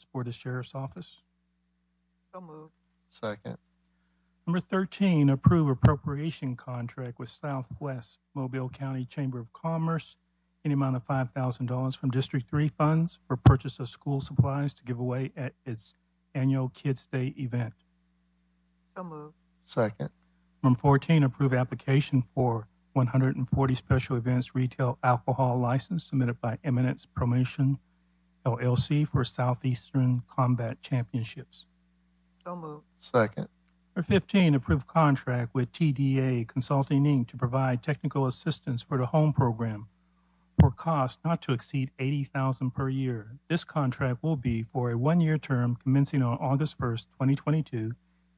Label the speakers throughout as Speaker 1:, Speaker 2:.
Speaker 1: for the Sheriff's Office.
Speaker 2: So moved.
Speaker 3: Second.
Speaker 1: Number 13, approve appropriation contract with Southwest Mobile County Chamber of Commerce in the amount of $5,000 from District 3 funds for purchase of school supplies to give away at its annual Kids' Day event.
Speaker 2: So moved.
Speaker 3: Second.
Speaker 1: Number 14, approve application for 140 special events retail alcohol license submitted by Eminence Promotion LLC for Southeastern Combat Championships.
Speaker 2: So moved.
Speaker 3: Second.
Speaker 1: Number 15, approve contract with TDA Consulting, Inc. to provide technical assistance for the home program for cost not to exceed 80000 per year. This contract will be for a one-year term commencing on August 1st, 2022, and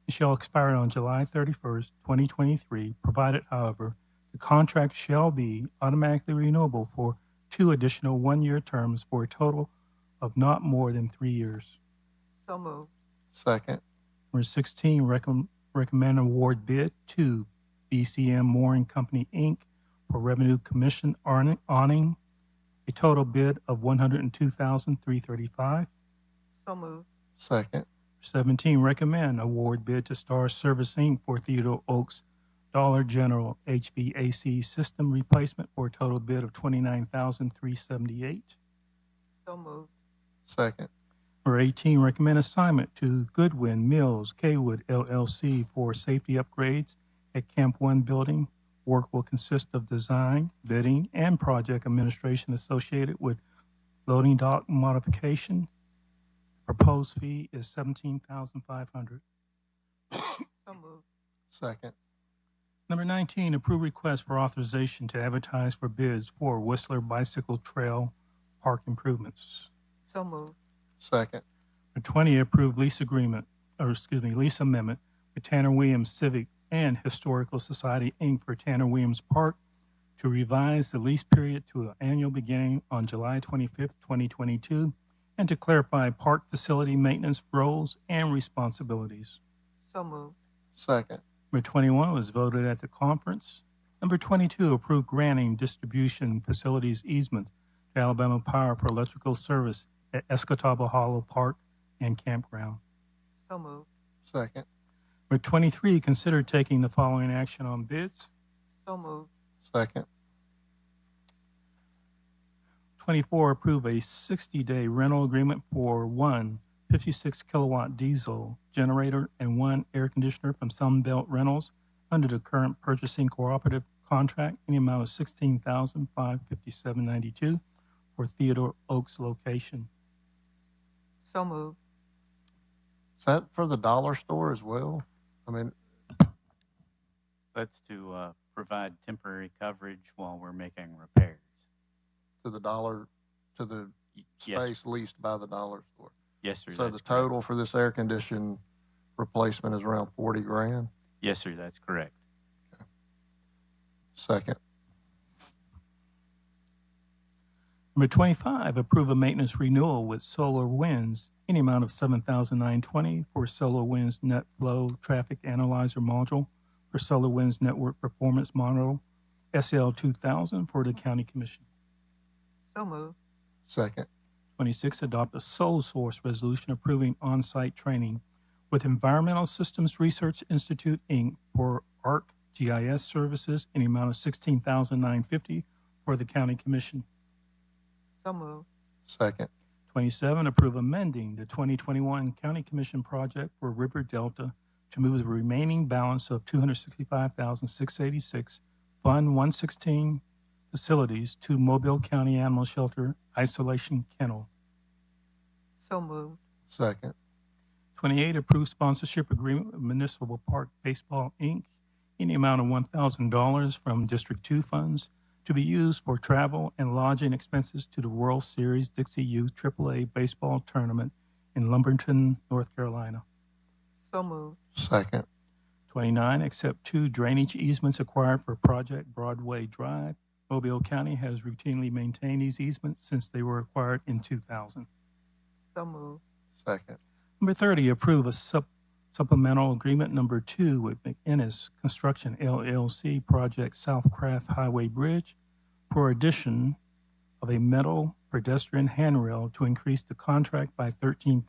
Speaker 1: shall expire on July 31st, 2023, provided, however, the contract shall be automatically renewable for two additional one-year terms for a total of not more than three years.
Speaker 2: So moved.
Speaker 3: Second.
Speaker 1: Number 16, recomm- recommend award bid to BCM Moore and Company, Inc. for Revenue Commission arni- awning, a total bid of $102,335.
Speaker 2: So moved.
Speaker 3: Second.
Speaker 1: 17, recommend award bid to Star Service, Inc. for Theodore Oaks Dollar General HVAC System Replacement for a total bid of $29,378.
Speaker 2: So moved.
Speaker 3: Second.
Speaker 1: Number 18, recommend assignment to Goodwin Mills Kaywood LLC for safety upgrades at Camp One building. Work will consist of design, bidding, and project administration associated with loading dock modification. Proposed fee is 17500
Speaker 2: So moved.
Speaker 3: Second.
Speaker 1: Number 19, approve request for authorization to advertise for bids for Whistler Bicycle Trail Park improvements.
Speaker 2: So moved.
Speaker 3: Second.
Speaker 1: Number 20, approved lease agreement, or excuse me, lease amendment with Tanner Williams Civic and Historical Society, Inc. for Tanner Williams Park to revise the lease period to an annual beginning on July 25th, 2022, and to clarify park facility maintenance roles and responsibilities.
Speaker 2: So moved.
Speaker 3: Second.
Speaker 1: Number 21 was voted at the conference. Number 22, approved granting distribution facilities easement to Alabama Power for electrical service at Escataba Hollow Park and Campground.
Speaker 2: So moved.
Speaker 3: Second.
Speaker 1: Number 23, consider taking the following action on bids.
Speaker 2: So moved.
Speaker 3: Second.
Speaker 1: 24, approve a 60-day rental agreement for one 56-kilowatt diesel generator and one air conditioner from Sunbelt Rentals under the current purchasing cooperative contract in the amount of $16,557.92 for Theodore Oaks location.
Speaker 2: So moved.
Speaker 3: Is that for the dollar store as well? I mean,
Speaker 4: That's to uh, provide temporary coverage while we're making repairs.
Speaker 3: to the dollar, to the
Speaker 4: Yes.
Speaker 3: space leased by the dollar store.
Speaker 4: Yes, sir.
Speaker 3: So
Speaker 4: that's
Speaker 3: the
Speaker 4: correct.
Speaker 3: total for this air condition replacement is around forty grand.
Speaker 4: Yes, sir. That's correct.
Speaker 3: Second.
Speaker 1: Number 25, approve a maintenance renewal with Solar Winds in the amount of 7920 for Solar Winds Net Flow Traffic Analyzer Module for Solar Winds Network Performance E Model SL2000 for the County Commission.
Speaker 2: So moved.
Speaker 3: Second.
Speaker 1: 26, adopt a sole source resolution approving on-site training with Environmental Systems Research Institute, Inc. for ARC GIS services in the amount of 16950 for the County Commission.
Speaker 2: So moved.
Speaker 3: Second.
Speaker 1: 27, approve amending the 2021 County Commission project for River Delta to move the remaining balance of 265686 Fund 116 facilities to Mobile County Animal Shelter Isolation Kennel.
Speaker 2: So moved.
Speaker 3: Second.
Speaker 1: 28, approve sponsorship agreement with Municipal Park Baseball, Inc. in the amount of $1,000 from District 2 funds to be used for travel and lodging expenses to the World Series Dixie Youth AAA Baseball Tournament in Lumberton, North Carolina.
Speaker 2: So moved.
Speaker 3: Second.
Speaker 1: 29, accept two drainage easements acquired for Project Broadway Drive. Mobile County has routinely maintained these easements since they were acquired in 2000.
Speaker 2: So moved.
Speaker 3: Second.
Speaker 1: Number 30, approve a sup- supplemental agreement number two with McInnes Construction LLC Project South Craft Highway Bridge for addition of a metal pedestrian handrail to increase the contract by thirteen